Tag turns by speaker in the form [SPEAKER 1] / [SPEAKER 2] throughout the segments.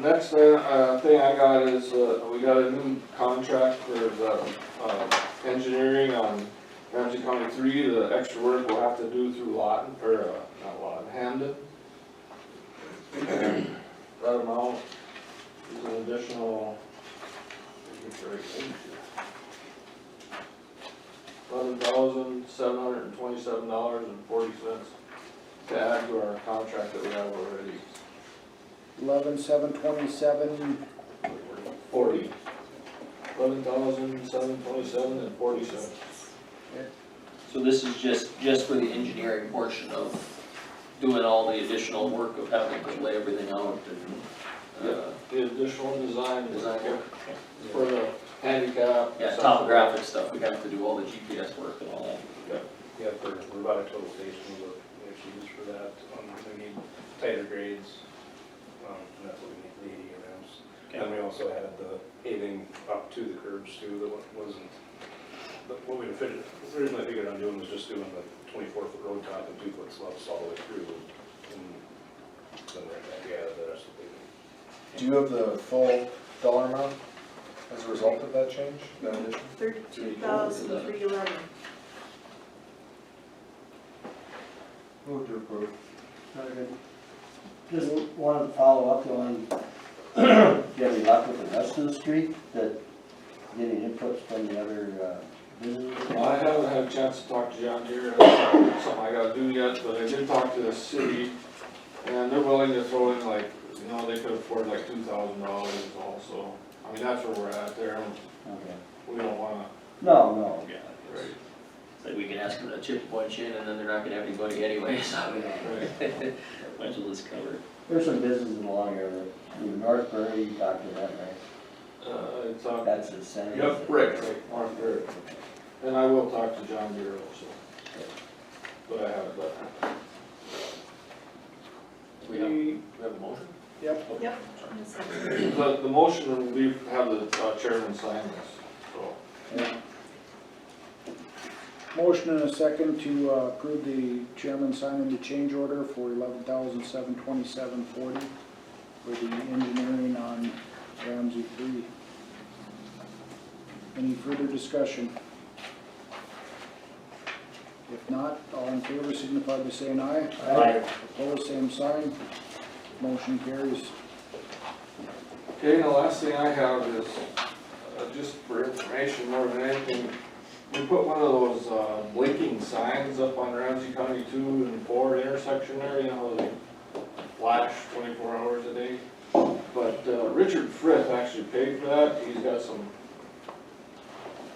[SPEAKER 1] next thing, uh, thing I got is, uh, we got a new contract for the, uh, engineering on Ramsey County three, the extra work we'll have to do through Lawton, or, uh, not Lawton, Hamden. And That amount is an additional. Eleven thousand, seven hundred and twenty-seven dollars and forty cents to add to our contract that we have already.
[SPEAKER 2] eleven, seven, twenty-seven,
[SPEAKER 1] Forty. Eleven thousand, seven twenty-seven and forty cents.
[SPEAKER 3] So this is just, just for the engineering portion of doing all the additional work of having to lay everything out and, uh,
[SPEAKER 1] The additional design is
[SPEAKER 3] design work.
[SPEAKER 1] for the handicap.
[SPEAKER 3] Yeah, topographic stuff, we have to do all the GPS work and all that.
[SPEAKER 4] Yeah, for, we're about a total station of issues for that, um, we need tighter grades, um, and that's what we need, the eighty grams. And we also had the paving up to the curbs too, that wa- wasn't, but what we had figured, originally figured on doing was just doing the twenty-four foot road top and two foot slopes all the way through, and then right back, yeah, the rest of the
[SPEAKER 5] Do you have the full dollar amount as a result of that change? That addition?
[SPEAKER 6] Thirty-two thousand three eleven.
[SPEAKER 5] Move to approve.
[SPEAKER 7] Very good. Just wanted to follow up on, getting luck with the rest of the street, that, getting inputs from the other uh, businesses?
[SPEAKER 1] I haven't had a chance to talk to John Deere, that's something I gotta do yet, but I did talk to the city, and they're willing to throw in like, you know, they could afford like two thousand dollars also. I mean, that's where we're at there, and
[SPEAKER 7] Okay.
[SPEAKER 1] we don't wanna,
[SPEAKER 7] No, no.
[SPEAKER 3] Yeah. It's like we can ask them to chip a bunch in and then they're not gonna have anybody anyway, so.
[SPEAKER 1] right,
[SPEAKER 3] Might as well just cover it.
[SPEAKER 7] There's some businesses along here, that, you know, Northbury, you talked to that, right?
[SPEAKER 1] uh, it's on.
[SPEAKER 7] That's the center.
[SPEAKER 1] Yep, Rick, Rick, Mark Rick. And I will talk to John Deere also. But I haven't, but.
[SPEAKER 3] We have, we have a motion?
[SPEAKER 2] yep,
[SPEAKER 6] Yep.
[SPEAKER 1] The, the motion will be, have the uh, chairman sign this, so.
[SPEAKER 2] yeah. Motion and a second to uh, approve the chairman signing the change order for eleven thousand, seven, twenty-seven, forty for the engineering on Ramsey three. Any further discussion? If not, all in favor signify by saying aye.
[SPEAKER 7] Aye.
[SPEAKER 2] Opposed, same sign. Motion carries.
[SPEAKER 1] Okay, and the last thing I have is, uh, just for information more than anything, we put one of those, uh, blinking signs up on Ramsey County two and four intersection there, you know, they flash twenty-four hours a day. But, uh, Richard Frith actually paid for that, he's got some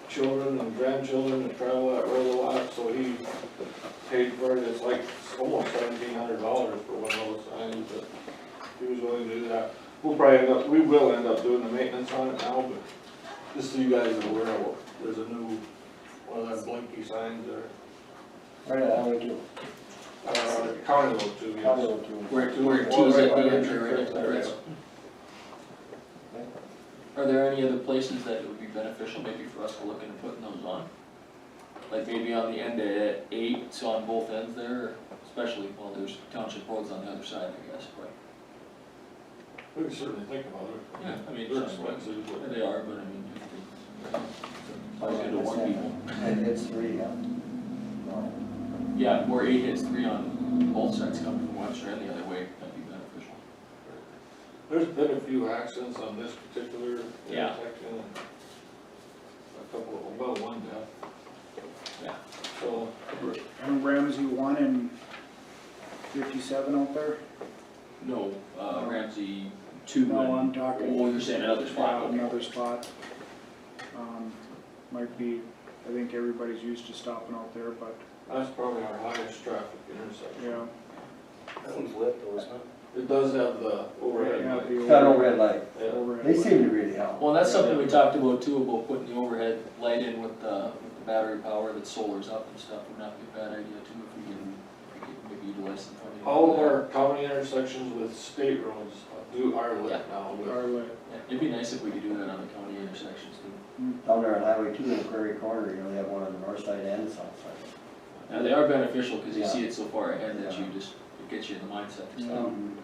[SPEAKER 1] children and grandchildren that travel that road a lot, so he paid for it, it's like almost seventeen hundred dollars for one of those signs, but he was willing to do that. We'll probably end up, we will end up doing the maintenance on it now, but just so you guys are aware, of what- there's a new, one of them blinky signs there.
[SPEAKER 7] Right, I would do.
[SPEAKER 1] Uh, county road too,
[SPEAKER 7] I
[SPEAKER 1] yes.
[SPEAKER 7] would do.
[SPEAKER 3] Where,
[SPEAKER 1] where it
[SPEAKER 3] two's
[SPEAKER 1] tees
[SPEAKER 3] at
[SPEAKER 1] up
[SPEAKER 3] the
[SPEAKER 1] the
[SPEAKER 3] entry
[SPEAKER 1] entry,
[SPEAKER 3] right
[SPEAKER 1] right there,
[SPEAKER 3] there.
[SPEAKER 1] yeah.
[SPEAKER 3] Are there any other places that it would be beneficial maybe for us to look into putting those on? Like maybe on the end of eight, so on both ends there, especially, well, there's township roads on the other side, I guess, but.
[SPEAKER 1] We can certainly think about it.
[SPEAKER 3] Yeah, I mean,
[SPEAKER 1] They're
[SPEAKER 3] it's-
[SPEAKER 1] expensive,
[SPEAKER 3] Yeah,
[SPEAKER 1] but
[SPEAKER 3] They are, but I mean. Always good to warn people.
[SPEAKER 7] It hits three, huh? No.
[SPEAKER 3] Yeah, where eight hits three on both sides coming from Webster and the other way, that'd be beneficial.
[SPEAKER 1] there's been a few accidents on this particular
[SPEAKER 3] Yeah.
[SPEAKER 1] intersection. and A couple, of- well, one death.
[SPEAKER 3] Yeah.
[SPEAKER 1] So,
[SPEAKER 2] And Ramsey one and fifty-seven out there?
[SPEAKER 3] No, uh, Ramsey two and.
[SPEAKER 2] No, I'm talking-
[SPEAKER 3] Oh, you're saying another spot,
[SPEAKER 2] Yeah,
[SPEAKER 3] okay.
[SPEAKER 2] Another spot. Um, might be, I think everybody's used to stopping out there, but,
[SPEAKER 1] that's probably our highest traffic intersection.
[SPEAKER 2] yeah.
[SPEAKER 4] paving. That one's lit though, isn't it?
[SPEAKER 1] It does have the overhead
[SPEAKER 2] Yeah,
[SPEAKER 1] light.
[SPEAKER 2] the
[SPEAKER 7] Federal red light,
[SPEAKER 1] Yeah.
[SPEAKER 2] overhead
[SPEAKER 7] they
[SPEAKER 2] light.
[SPEAKER 7] seem to really help.
[SPEAKER 3] Well, that's something we talked about too, about putting the overhead light in with the, with the battery power that solar's up and stuff, would not be a bad idea too, if we can, if we can maybe utilize some. funding for
[SPEAKER 1] All of
[SPEAKER 3] that.
[SPEAKER 1] our county intersections with state roads do are lit now with
[SPEAKER 2] Our lit.
[SPEAKER 3] Yeah, It'd be nice if we could do that on the county intersections too.
[SPEAKER 7] Down there on Highway two in Prairie Corner, you know, they have one on the north side and the south side.
[SPEAKER 3] Now, they are beneficial, cause you
[SPEAKER 7] Yeah.
[SPEAKER 3] see it so far ahead that
[SPEAKER 7] Yeah.
[SPEAKER 3] Mm-hmm. you just, it gets you in the mindset to stop.
[SPEAKER 7] Um,